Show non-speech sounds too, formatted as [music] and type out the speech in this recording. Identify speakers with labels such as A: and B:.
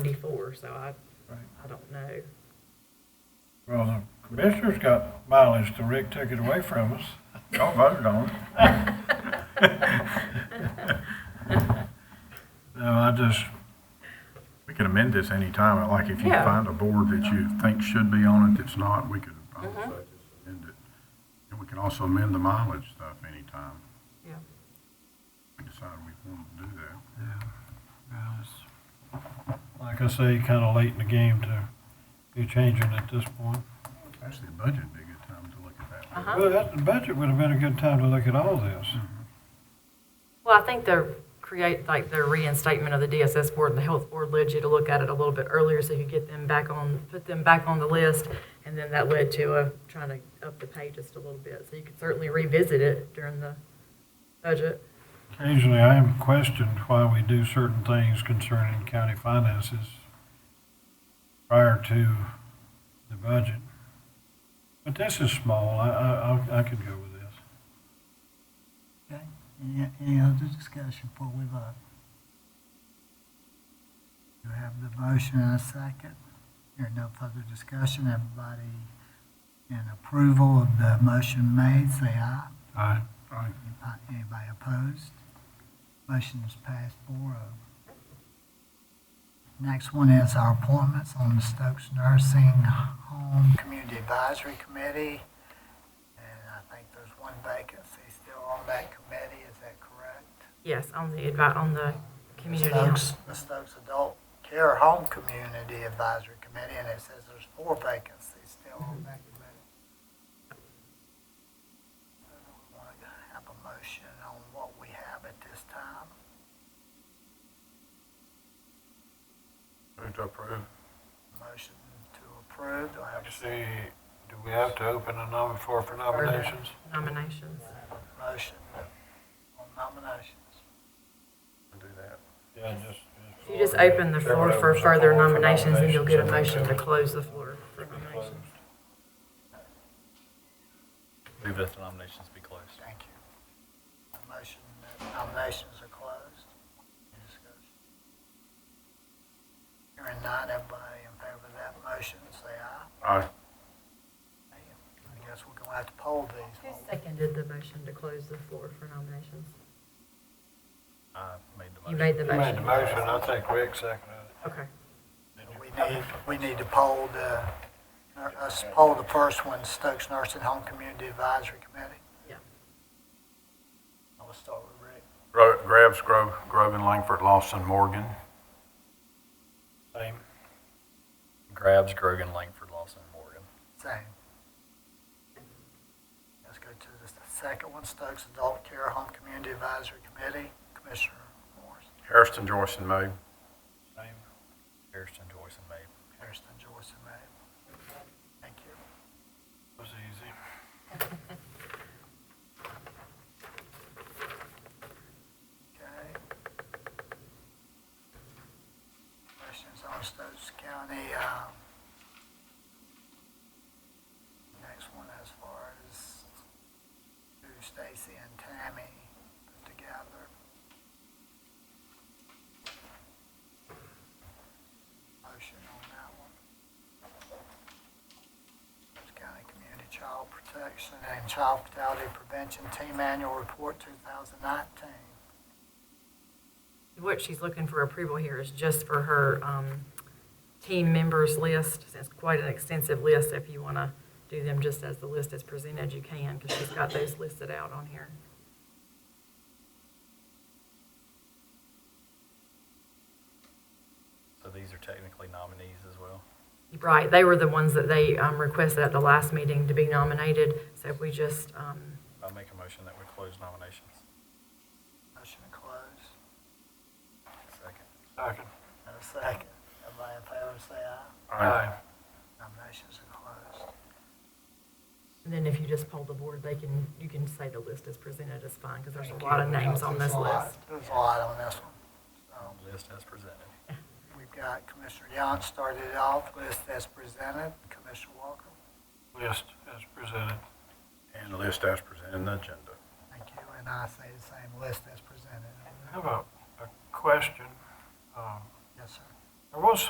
A: forty-four, so I,
B: Right.
A: I don't know.
B: Well, the commissioners got mileage till Rick took it away from us. Y'all voted on
C: [laughs]
B: it. No, I just,
C: We can amend this anytime, like if you
A: Yeah.
C: find a board that you think should be on it, that's not, we could, I would say, just amend it. And we can also amend the mileage stuff anytime,
A: Yeah.
C: we decide we want to do that.
B: well, it's- like I say, kinda late in the game to be changing at this point.
C: Actually, the budget'd be a good time to look at that.
A: Uh-huh.
B: Well, that, the budget would have been a good time to look at all this.
C: Mm-hmm.
A: Well, I think they're create, like their reinstatement of the DSS board and the health board led you to look at it a little bit earlier so you could get them back on, put them back on the list. And then that led to, uh, trying to up the pay just a little bit. So you could certainly revisit it during the budget.
B: Occasionally, I am questioned why we do certain things concerning county finances prior to the budget. But this is small, I, I, I- I could go with this.
D: Okay, any, any other discussion before we vote? You have the motion and a second. There no further discussion. Everybody in approval of the motion made, say aye.
B: Aye.
C: Aye.
D: Anybody- Anybody opposed? Motion is passed four oh. Next one is our appointments on the Stokes Nursing Home Community Advisory Committee. And I think there's one vacancy still on that committee, is that correct?
A: Yes, on the advi, on the community.
D: Stokes, the Stokes Adult Care Home Community Advisory Committee, and it says there's four vacancies still on that committee. I Want to have a motion on what we have at this time?
C: Move to approve.
D: Motion to approve, do I have a
B: Actually, do we have to open a nom, floor for nominations?
A: Nominations.
D: motion on nominations?
C: Do that.
B: Yeah, just.
A: If you just open the floor for further nominations, then you'll get a motion to close the floor for nominations.
E: Move that the nominations be closed.
D: Thank you. The Motion, that nominations are closed. Any discussion? Hearing none, everybody in favor of that motion, say aye.
C: Aye.
D: I guess we're gonna have to poll
A: Who
D: these.
A: seconded the motion to close the floor for nominations?
E: I made the motion.
A: You made the motion.
B: I think Rick seconded
A: Okay.
D: We need, we need to poll the, uh, us poll the first one, Stokes Nursing Home Community Advisory Committee.
A: Yeah.
D: I will start with Rick.
C: Grabs, Grove, Grogan, Langford, Lawson, Morgan.
B: it. Same.
E: Grabs, Grogan, Langford, Lawson, Morgan.
D: Same. Let's go to the second one, Stokes Adult Care Home Community Advisory Committee, Commissioner Morris,
C: Hairston, Joyce, and Moe.
B: Same.
E: Harrison, Joyce, and May.
D: Harrison, Joyce, and May. Thank you.
B: Was easy.
D: Okay. Questions on Stokes County, um, next one as far as who Stacy and Tammy put together. Motion on that one. Stokes County Community Child Protection and Child Fatality Prevention Team Annual Report two thousand nineteen.
A: What she's looking for approval here is just for her um, team members list. It's quite an extensive list. If you want to do them just as the list is presented, you can, because she's got those listed out on here.
E: So these are technically nominees as well.
A: Right, they were the ones that they um, requested at the last meeting to be nominated, so if we just, um,
E: I make a motion that we close nominations.
D: Motion to close.
E: Second.
B: Second.
D: And a second. Everybody in favor, say aye.
B: Aye.
D: Nominations are closed.
A: and then if you just poll the board, they can, you can say the list is presented is fine, because there's a lot of names on
D: There's
A: this
D: a lot-
A: list.
D: There's a lot on this one. So
E: List as presented.
D: we've got Commissioner Young started it off, list as presented. Commissioner Walker,
B: List as presented.
C: And list as presented in the agenda.
D: thank you, and I say the same, list as presented.
B: I have a, a question. Um,
D: Yes, sir.
B: There was